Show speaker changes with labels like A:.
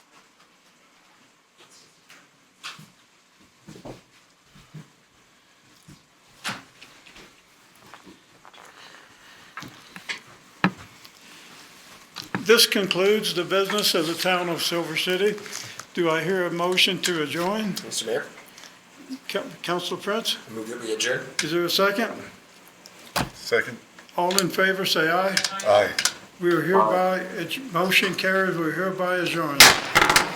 A: This concludes the business of the town of Silver City. Do I hear a motion to adjourn?
B: Mr. Mayor,
A: Coun- Council Prince,
B: I move that we adjourn.
A: is there a second?
C: Second?
A: All in favor, say aye.
C: Aye.
A: We are hereby, it's- motion carries, we're hereby adjourned.